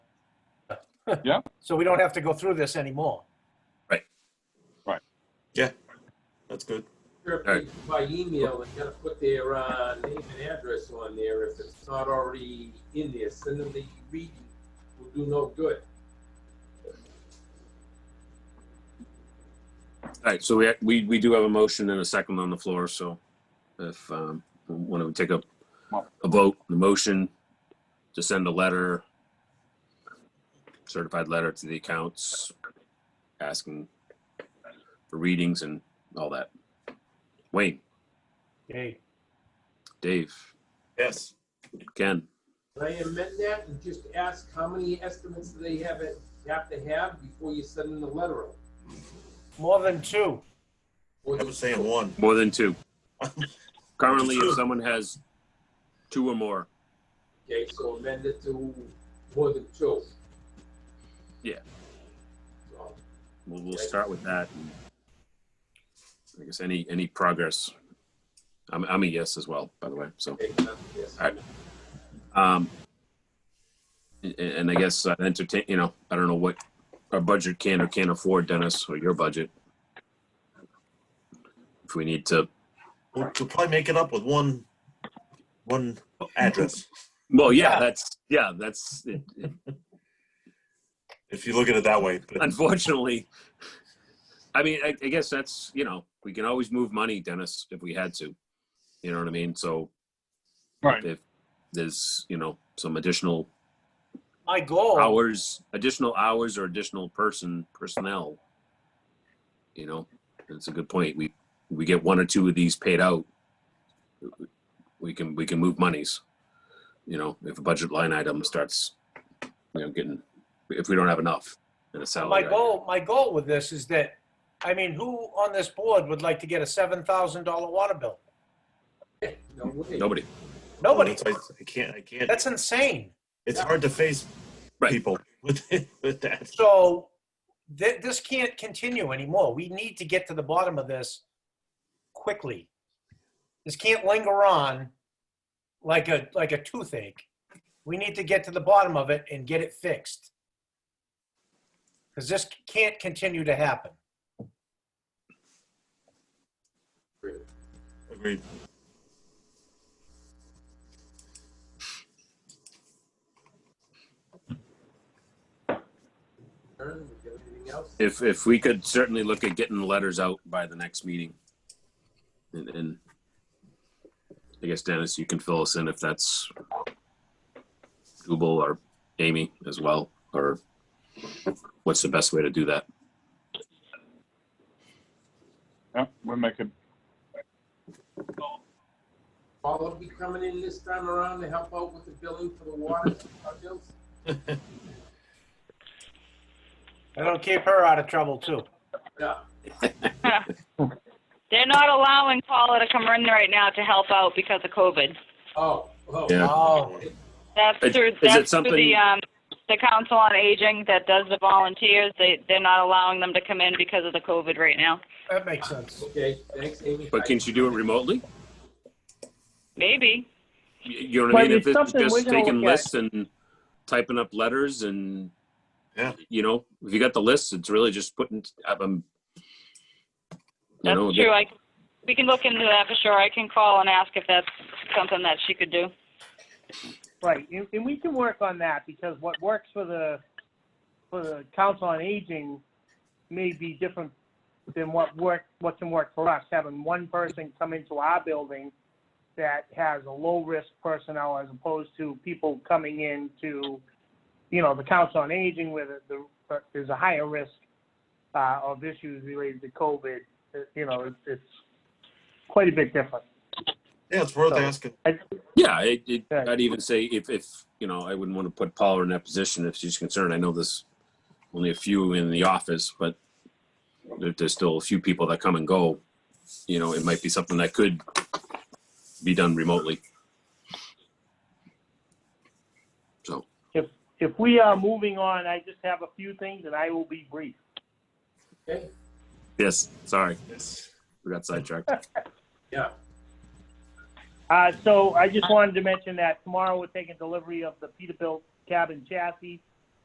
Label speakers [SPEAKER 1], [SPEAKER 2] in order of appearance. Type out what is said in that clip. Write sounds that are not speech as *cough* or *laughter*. [SPEAKER 1] Yeah.
[SPEAKER 2] So we don't have to go through this anymore.
[SPEAKER 3] That's good.
[SPEAKER 4] Sure, by email, and gotta put their, uh, name and address on there if it's not already in there, send them the reading, will do no good.
[SPEAKER 5] All right, so we, we, we do have a motion and a second on the floor, so if, um, want to take a, a vote, the motion to send a letter, certified letter to the accounts, asking for readings and all that. Wayne,
[SPEAKER 2] Okay,
[SPEAKER 5] Dave,
[SPEAKER 3] Yes.
[SPEAKER 5] Ken,
[SPEAKER 4] Can I amend that and just ask how many estimates do they have, it- have to have before you send them the letter? out?
[SPEAKER 2] more than two.
[SPEAKER 4] Or
[SPEAKER 3] I
[SPEAKER 4] just-
[SPEAKER 3] was saying one. *laughs*
[SPEAKER 5] more than two. Currently, if someone has two or more,
[SPEAKER 4] Okay, so amend it to more than two.
[SPEAKER 5] Yeah.
[SPEAKER 4] So,
[SPEAKER 5] we'll, we'll start with that. and I guess any, any progress. I'm, I'm a yes as well, by the way, so.
[SPEAKER 4] okay, that's- yes.
[SPEAKER 5] All right. Um, a- and I guess uh, entertain, you know, I don't know what our budget can or can't afford, Dennis, or your budget. If we need to,
[SPEAKER 3] We'll, we'll probably make it up with one, one address.
[SPEAKER 5] well, yeah,
[SPEAKER 2] Yeah.
[SPEAKER 5] that's, yeah, that's, it- it-
[SPEAKER 3] If you look at it that way. But
[SPEAKER 5] unfortunately. I mean, I, I guess that's, you know, we can always move money, Dennis, if we had to. You know what I mean? So
[SPEAKER 1] Right.
[SPEAKER 5] if there's, you know, some additional
[SPEAKER 2] My goal,
[SPEAKER 5] hours, additional hours or additional person, personnel. You know, it's a good point. We, we get one or two of these paid out. We can, we can move monies. You know, if a budget line item starts, you know, getting, if we don't have enough in a
[SPEAKER 2] my
[SPEAKER 5] salary.
[SPEAKER 2] goal, my goal with this is that, I mean, who on this board would like to get a seven thousand dollar water bill?
[SPEAKER 4] No way.
[SPEAKER 5] Nobody.
[SPEAKER 2] Nobody.
[SPEAKER 3] I I can't, I can't.
[SPEAKER 2] That's insane.
[SPEAKER 3] It's hard to face
[SPEAKER 5] Right.
[SPEAKER 3] people *laughs* with, with that.
[SPEAKER 2] So thi- this can't continue anymore. We need to get to the bottom of this quickly. This can't linger on like a, like a toothache. We need to get to the bottom of it and get it fixed. Because this can't continue to happen.
[SPEAKER 3] Agreed.
[SPEAKER 4] Aaron, we got anything else?
[SPEAKER 5] If, if we could certainly look at getting the letters out by the next meeting. And, and I guess Dennis, you can fill us in if that's Google or Amy as well, or what's the best way to do that?
[SPEAKER 1] Yeah, we'll make it.
[SPEAKER 4] Paul will be coming in this time around to help out with the billing for the water bills?
[SPEAKER 2] That'll keep her out of trouble too.
[SPEAKER 4] Yeah.
[SPEAKER 6] *laughs* They're not allowing Paula to come in right now to help out because of COVID.
[SPEAKER 4] Oh, oh.
[SPEAKER 5] Yeah.
[SPEAKER 2] Oh,
[SPEAKER 6] That's
[SPEAKER 5] Is-
[SPEAKER 6] through,
[SPEAKER 5] is it
[SPEAKER 6] that's through
[SPEAKER 5] something-
[SPEAKER 6] the, um, the Council on Aging that does the volunteers. They, they're not allowing them to come in because of the COVID right now.
[SPEAKER 2] that makes sense.
[SPEAKER 4] Okay, thanks, Amy.
[SPEAKER 5] But can she do it remotely?
[SPEAKER 6] Maybe.
[SPEAKER 5] You- You know what I
[SPEAKER 7] Well,
[SPEAKER 5] mean? If
[SPEAKER 7] it's
[SPEAKER 5] it's
[SPEAKER 7] something we're
[SPEAKER 5] just
[SPEAKER 7] gonna
[SPEAKER 5] taking
[SPEAKER 7] look at.
[SPEAKER 5] lists and typing up letters and,
[SPEAKER 3] Yeah.
[SPEAKER 5] you know, if you got the list, it's really just putting, um, you
[SPEAKER 6] That's
[SPEAKER 5] know,
[SPEAKER 6] true. I, we can look into that for sure. I can call and ask if that's something that she could do.
[SPEAKER 7] Right, and, and we can work on that because what works for the, for the council on aging may be different than what work, what can work for us. Having one person come into our building that has a low-risk personnel as opposed to people coming in to, you know, the council on aging where the, the, there's a higher risk, uh, of issues related to COVID. It- You know, it's, it's quite a bit different.
[SPEAKER 3] Yeah, it's worth
[SPEAKER 7] So-
[SPEAKER 3] asking.
[SPEAKER 7] I-
[SPEAKER 5] Yeah, it, it,
[SPEAKER 7] Yeah.
[SPEAKER 5] I'd even say if, if, you know, I wouldn't want to put Paula in that position if she's concerned. I know there's only a few in the office, but if there's still a few people that come and go, you know, it might be something that could be done remotely. So,
[SPEAKER 7] If we are moving on, I just have a few things and I will be brief.
[SPEAKER 4] Okay,
[SPEAKER 5] yes, sorry,
[SPEAKER 3] Yes.
[SPEAKER 5] we got sidetracked.
[SPEAKER 4] yeah.
[SPEAKER 7] Uh, so I just wanted to mention that tomorrow we're taking delivery of the Peterbilt cabin chassis.